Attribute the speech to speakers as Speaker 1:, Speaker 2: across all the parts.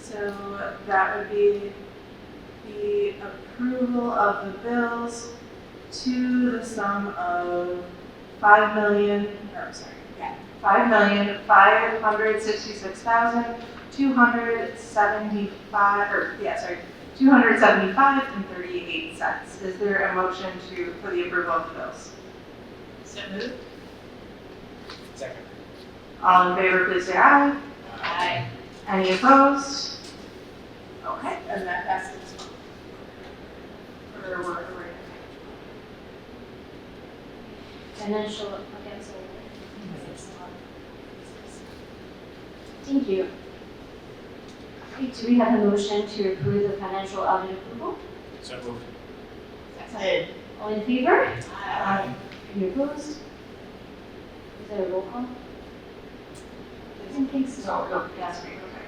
Speaker 1: so that would be the approval of the bills to the sum of five million, no, I'm sorry, yeah, five million, five hundred sixty-six thousand, two hundred seventy-five, or, yeah, sorry, two hundred seventy-five and thirty-eight cents. Is there a motion to, for the approval of the bills?
Speaker 2: So moved.
Speaker 3: Second.
Speaker 1: All in favor, please say aye.
Speaker 2: Aye.
Speaker 1: Any opposed? Okay,
Speaker 2: And that passes.
Speaker 1: or we're- we're-
Speaker 4: And then she'll look at it. Thank you. Okay, do we have a motion to approve the financial audit approval?
Speaker 3: So moved.
Speaker 2: Second.
Speaker 4: All in favor?
Speaker 2: Aye.
Speaker 4: Any opposed? Is there a roll call? I don't think so.
Speaker 1: Oh, yes, we- okay.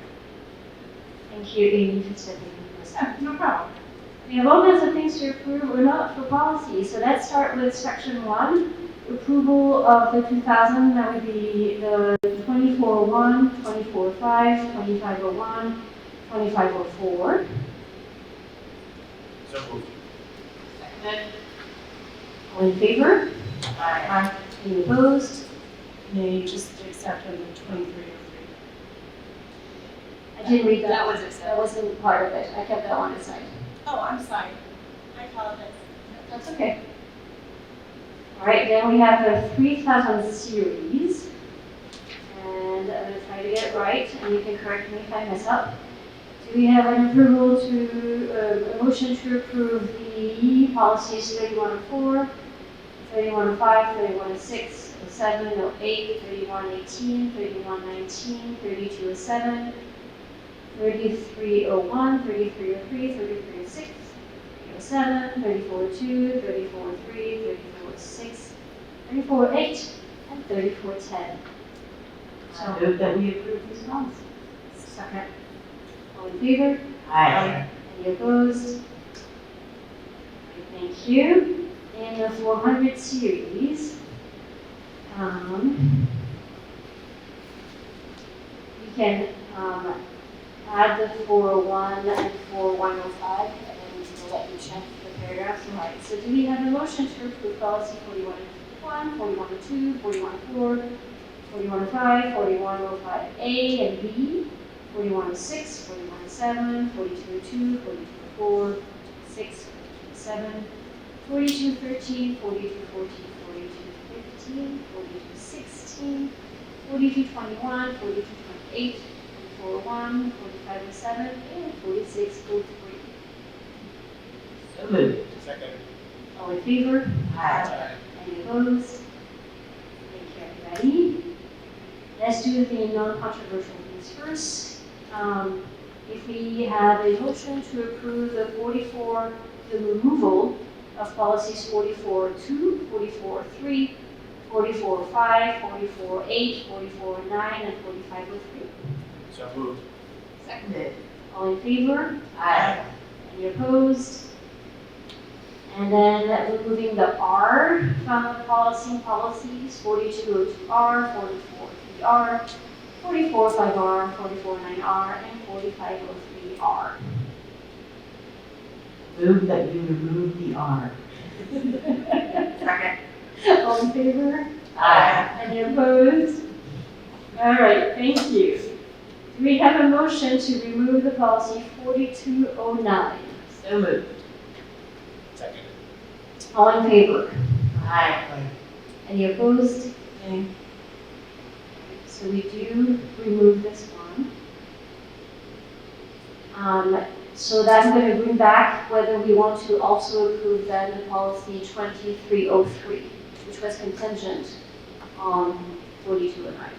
Speaker 4: Thank you, Amy, for stepping in. for us.
Speaker 1: Yeah, No problem.
Speaker 4: We have all kinds of things to approve, we're not for policy, so let's start with section one. Approval of the two thousand, that would be the twenty-four oh one, twenty-four oh five, twenty-five oh one, twenty-five oh four.
Speaker 3: So moved.
Speaker 2: Second.
Speaker 4: All in favor?
Speaker 1: Aye.
Speaker 4: Any opposed?
Speaker 5: May just accept under twenty-three oh
Speaker 4: I didn't read
Speaker 2: That
Speaker 4: that,
Speaker 2: was
Speaker 4: that
Speaker 2: accepted.
Speaker 4: wasn't part of it, I kept that one aside.
Speaker 2: Oh, I'm sorry. I apologize.
Speaker 4: That's okay. All right, then we have the three thousand series. And I'm gonna try to get it right, and you can correct me if I mess up. Do we have an approval to, uh, a motion to approve the oh policies 3104, 3105, 3106, 0708, 3118, 3119, 3207, 3301, 3303, 3306, 307, 342, 343, 346, 348, and 3410.
Speaker 5: three. So move that we approve these bonds.
Speaker 1: Second.
Speaker 4: All in favor?
Speaker 1: Aye.
Speaker 4: Any opposed? Alright, Thank you. And the 400 series. um, You can um, add the 41 and 4105, and then we'll let you check the paragraphs. All right, so do we have a motion to approve policy 4101, 4102, 4104, 4105, 4105A and B? 4106, 4107, 4202, 4204, 6, 7, oh 4213, 4214, oh 4215, 4216, 4221, 4228, 441, 4507, and 4603.
Speaker 5: So moved.
Speaker 3: Second.
Speaker 4: All in favor?
Speaker 3: Aye.
Speaker 4: Any opposed? Thank you, everybody. Let's do the non-controversial things first. Um, If we have a motion to approve the 44, the removal of policies 44-2, 44-3, 44-5, 44-8, 44-9, and oh 45-3.
Speaker 3: So moved.
Speaker 2: Seconded.
Speaker 4: All in favor?
Speaker 5: Aye.
Speaker 4: Any opposed? And then removing the R from the policy, oh policies, 4202R, 4403R, 445R, 449R, and 4503R.
Speaker 5: Move that you remove the R.
Speaker 1: Second.
Speaker 4: All in favor? Any opposed? All right, thank you. Do we have a motion to remove the policy 4209?
Speaker 5: So moved.
Speaker 3: Second.
Speaker 4: All in favor?
Speaker 5: Aye.
Speaker 4: Any opposed?
Speaker 5: Nay.
Speaker 4: So we do remove this one. Um, so that's gonna bring back whether we want to also approve then the policy twenty-three oh three, which was contingent on forty-two and nine.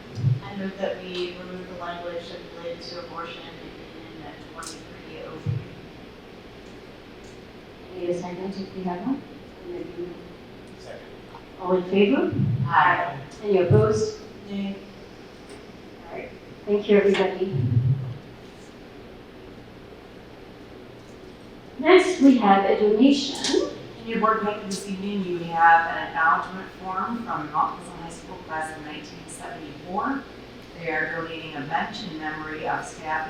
Speaker 6: I move that we remove the language related to abortion in twenty-three oh three.
Speaker 4: Need a second if we have one? And then you-
Speaker 3: Second.
Speaker 4: All in favor?
Speaker 6: Aye.
Speaker 4: Any opposed?
Speaker 1: Nay.
Speaker 4: All right, thank you, everybody. Next, we have a donation.
Speaker 1: In your board packet this evening, you have an acknowledgement form from Mount Pleasant High School class of 1974. They are donating a bench in memory of staff